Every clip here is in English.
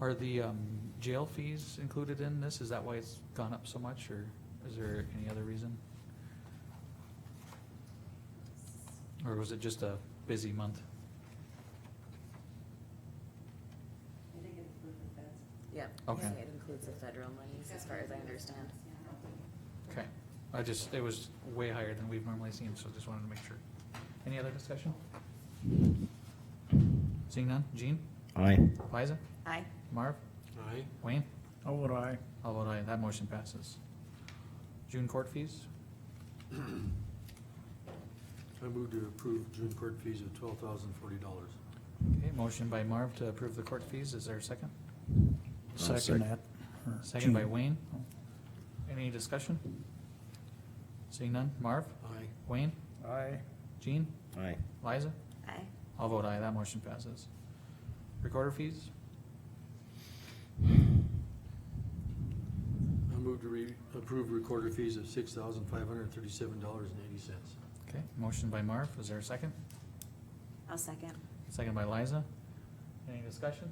Are the um, jail fees included in this? Is that why it's gone up so much, or is there any other reason? Or was it just a busy month? I think it includes the feds. Yeah. Okay. It includes the federal monies, as far as I understand. Okay, I just, it was way higher than we've normally seen, so just wanted to make sure. Any other discussion? Seeing none, Jean, Aye. Liza, Aye. Marv, Aye. Wayne, How would I? all vote aye, that motion passes. June court fees, I move to approve June court fees of twelve thousand forty dollars. okay, motion by Marv to approve the court fees, is there a second? second. Second that. or Second by Jean. Wayne. Any discussion? Seeing none, Marv, Aye. Wayne, Aye. Jean, Aye. Liza, Aye. all vote aye, that motion passes. Recorder fees, I move to re, approve recorder fees of six thousand five hundred and thirty-seven dollars and eighty cents. okay, motion by Marv, is there a second? I'll second. Second by Liza. Any discussion?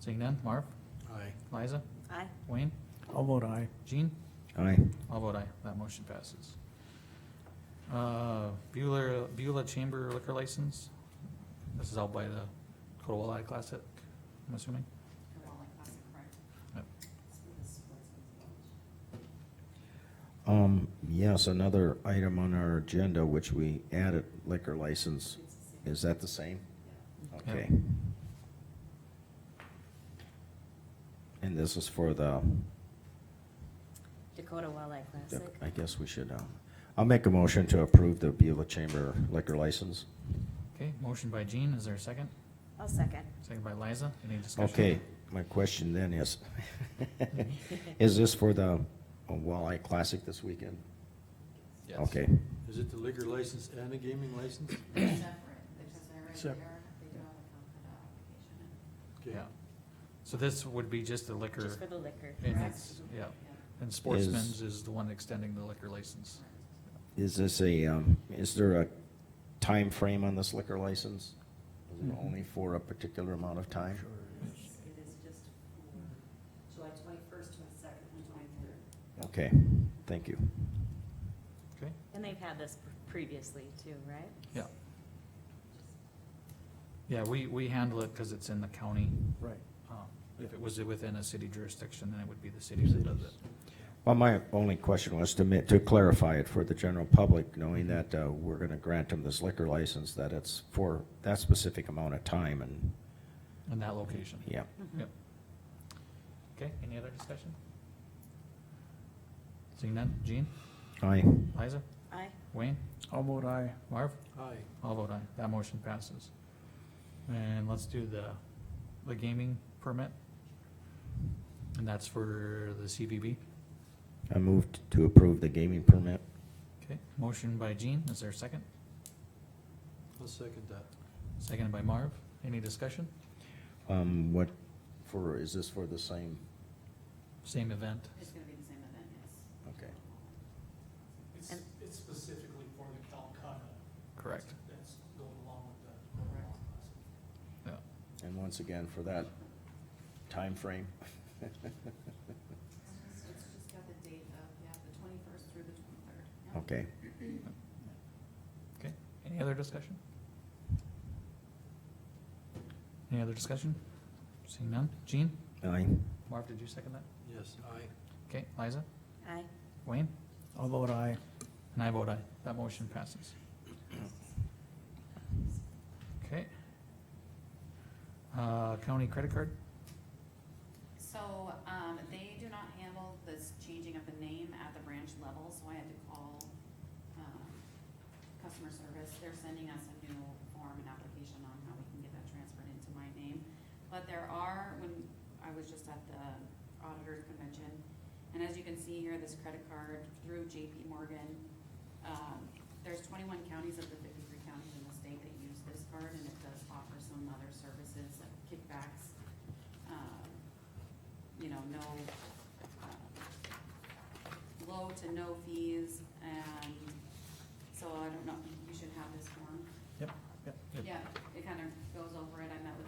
Seeing none, Marv, Aye. Liza, Aye. Wayne, How would I? Jean, Aye. all vote aye, that motion passes. Uh, Beulah, Beulah Chamber liquor license, this is out by the Cotawala Classic, I'm assuming? Yep. Um, yes, another item on our agenda, which we added liquor license. Is that the same? Okay. And this is for the, Dakota Walleye Classic. I guess we should, um, I'll make a motion to approve the Beulah Chamber liquor license. Okay, motion by Jean, is there a second? I'll second. Second by Liza, any discussion? Okay, my question then is, is this for the uh, Walleye Classic this weekend? Yes. Okay, Is it the liquor license and a gaming license? Sep- Okay. Yeah. So this would be just the liquor, Just for the liquor. and it's, yeah, and Sportsman's is the one extending the liquor license. is this a, um, is there a time frame on this liquor license? Is it Mhm. only for a particular amount of time? It is just for July twenty-first, twenty-second, and twenty-third. Okay, thank you. Okay, And they've had this previously too, right? yeah. Yeah, we, we handle it because it's in the county. Right. Um, If it was within a city jurisdiction, then it would be the city that does it. Well, my only question was to ma, to clarify it for the general public, knowing that, uh, we're gonna grant them this liquor license, that it's for that specific amount of time and, In that location. yeah. Mhm. Yep. Okay, any other discussion? Seeing none, Jean, Aye, Liza, Aye. Wayne, How would I? Marv? Aye. All vote aye, that motion passes. And let's do the, the gaming permit. And that's for the CBB. I moved to approve the gaming permit. Okay, motion by Jean, is there a second? I'll second that. Seconded by Marv, any discussion? Um, what, for, is this for the same? Same event, It's gonna be the same event, yes. Okay. It's, And- it's specifically for the Calcutta. correct, That's going along with the Corona classic. yeah. And once again, for that time frame. It's just- It's just got the date of, yeah, the twenty-first through the twenty-third. Okay. Okay, any other discussion? Any other discussion? Seeing none, Jean, Aye. Marv, did you second that? Yes, aye. Okay, Liza, Aye. Wayne? How would I? And I vote aye, that motion passes. Okay. Uh, county credit card, So, um, they do not handle this changing of the name at the branch level, so I had to call, um, customer service. They're sending us a new form and application on how we can get that transferred into my name. But there are, when, I was just at the auditor's convention, and as you can see here, this credit card through JP Morgan, um, there's twenty-one counties of the fifty-three counties in the state that use this card, and it does offer some other services, like kickbacks, um, you know, no, uh, low to no fees, and so I don't know, you should have this form. Yep. Yeah, it kind of goes over it, I met with